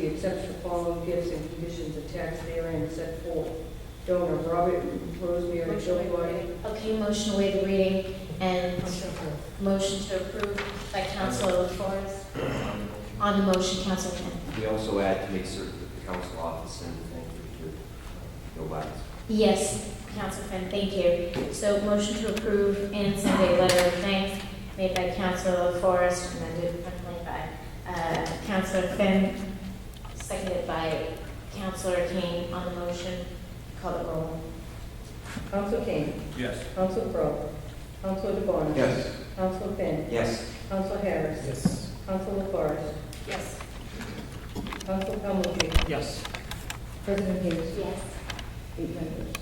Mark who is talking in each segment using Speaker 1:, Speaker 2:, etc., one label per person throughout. Speaker 1: accepts the following gifts and conditions attached therein set forth. Donor Robert Rosemary Gilroy.
Speaker 2: Okay, motion to waive the reading and motion to approve by Councilor LaFors. On the motion, Councilor Kent.
Speaker 3: We also add to make certain that the council office and thank you to uh, Bill Wagner.
Speaker 2: Yes, Council Friend, thank you. So motion to approve and send a letter of thanks made by Council Forrest, amended amended by uh, Councilor Finn, seconded by Councilor Kane on the motion. Call the roll.
Speaker 1: Council Kane.
Speaker 4: Yes.
Speaker 1: Council Crowe. Council DeBona.
Speaker 3: Yes.
Speaker 1: Council Finn.
Speaker 3: Yes.
Speaker 1: Council Harris.
Speaker 4: Yes.
Speaker 1: Council LaForest.
Speaker 2: Yes.
Speaker 1: Council Calhoun.
Speaker 4: Yes.
Speaker 1: President Hughes.
Speaker 2: Yes.
Speaker 1: Eight members.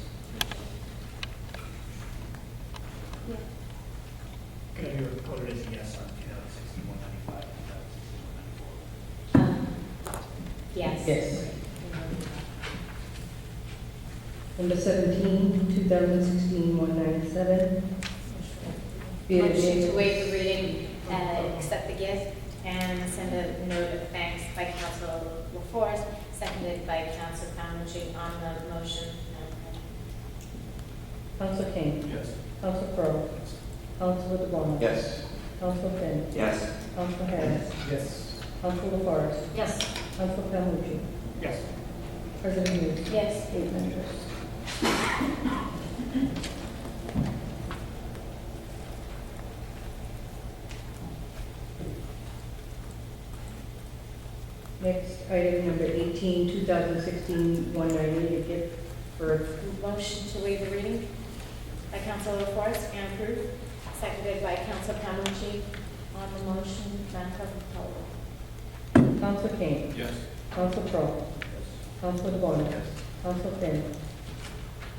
Speaker 4: Okay, you recorded as a yes on sixty-one ninety-five, two thousand sixty-one ninety-four.
Speaker 2: Um, Yes.
Speaker 1: Yes. Number 17, 2016-197. Be it
Speaker 2: Motion
Speaker 1: amended-
Speaker 2: to waive the reading, uh, accept the gift, and send a note of thanks by Council LaForest, seconded by Council Calhoun on the motion.
Speaker 1: Council Kane.
Speaker 4: Yes.
Speaker 1: Council Crowe. Council DeBona.
Speaker 3: Yes.
Speaker 1: Council Finn.
Speaker 3: Yes.
Speaker 1: Council Harris.
Speaker 4: Yes.
Speaker 1: Council LaForest.
Speaker 2: Yes.
Speaker 1: Council Calhoun.
Speaker 4: Yes.
Speaker 1: President Hughes.
Speaker 2: Yes.
Speaker 1: Eight members. Next, item number 18, 2016-198, a gift for,
Speaker 2: Motion to waive the reading by Council LaForest and approved, seconded by Council Calhoun on the motion. Madam Clerk, call the roll.
Speaker 1: Council Kane,
Speaker 4: Yes.
Speaker 1: Council Crowe, Council DeBona, Council Finn,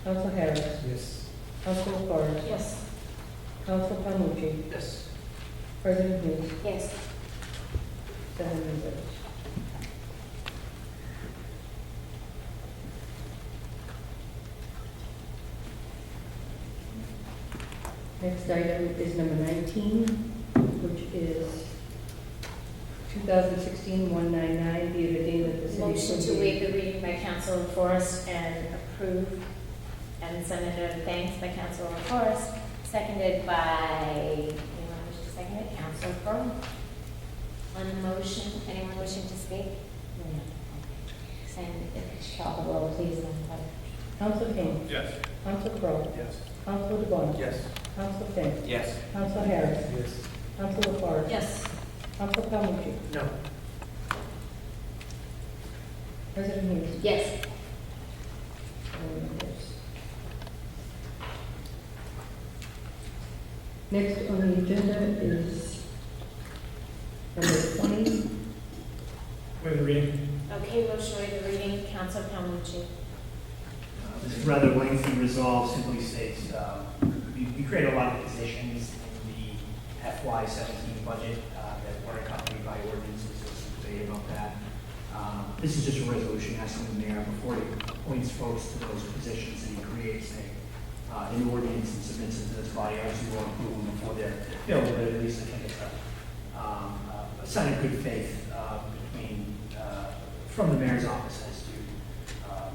Speaker 1: Council Harris,
Speaker 4: Yes.
Speaker 1: Council LaFors,
Speaker 2: Yes.
Speaker 1: Council Palmucci,
Speaker 4: Yes.
Speaker 1: President Hughes,
Speaker 2: Yes.
Speaker 1: seven members. Next item is number 19, which is 2016-199, be it ordained that the city...
Speaker 2: Motion to
Speaker 1: appropriate-
Speaker 2: waive the reading by Council LaForest and approve, and send a note of thanks by Council LaForest, seconded by, anyone wishing to second it, Council Crowe. On the motion, anyone wishing to speak? No. And if you call the roll, please, Madam Clerk.
Speaker 1: Council King,
Speaker 4: Yes.
Speaker 1: Council Crowe,
Speaker 4: Yes.
Speaker 1: Council DeBon,
Speaker 3: Yes.
Speaker 1: Council Finn,
Speaker 3: Yes.
Speaker 1: Council Harris,
Speaker 4: Yes.
Speaker 1: Council LaFars,
Speaker 2: Yes.
Speaker 1: Council Palmucci,
Speaker 4: No.
Speaker 1: President Hughes.
Speaker 2: Yes.
Speaker 1: Next on the agenda is number 20,
Speaker 4: Wait a reading.
Speaker 2: Okay, motion to waive the reading, Council Calhoun.
Speaker 5: This is rather lengthy resolve simply states, um, we we create a lot of positions in the FY seventeen budget uh, that weren't accompanied by ordinances, so it's debate about that. Um, This is just a resolution asking the mayor before he appoints folks to those positions and he creates a, uh, an ordinance and submits it to this body, obviously we'll approve them before they're filled, but at least I think it's a, um, a sign of good faith uh, between, uh, from the mayor's office as to um,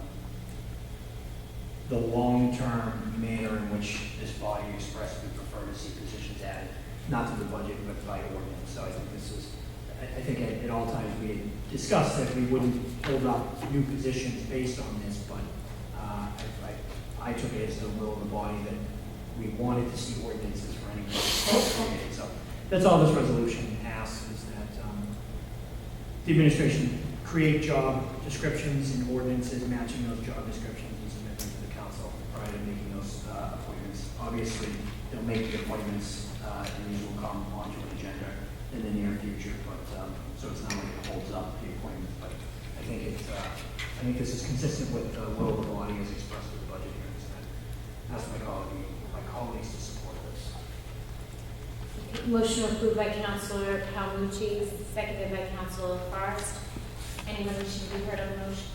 Speaker 5: the long-term manner in which this body expressed we prefer to see positions added, not to the budget, but by ordinance. So I think this is, I, I think at, at all times we had discussed that we wouldn't hold up new positions based on this, but, uh, I, I, I took it as the will of the body that we wanted to see ordinances for any. Okay, So that's all this resolution asks is that, um, the administration create job descriptions and ordinances matching those job descriptions and submit them to the council prior to making those uh, appointments. Obviously, they'll make the appointments, uh, and these will come onto an agenda in the near future, but, um, so it's not like it holds up the appointment, but I think it's, uh, I think this is consistent with the will of the body as expressed with the budget hearings. and I Ask my colleague, my colleagues to support this.
Speaker 2: Motion approved by Councilor Calhoun, seconded by Councilor Forrest. Anyone wishing to be heard on the motion?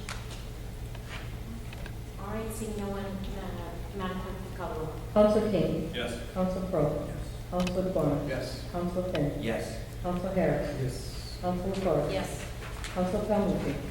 Speaker 2: All right, seeing no one, uh, Madam Clerk, call the roll.
Speaker 1: Council King,
Speaker 4: Yes.
Speaker 1: Council Crowe,
Speaker 4: Yes.
Speaker 1: Council DeBon,
Speaker 4: Yes.
Speaker 1: Council Finn,
Speaker 3: Yes.
Speaker 1: Council Harris,
Speaker 4: Yes.
Speaker 1: Council LaFors,
Speaker 2: Yes.
Speaker 1: Council Calhoun,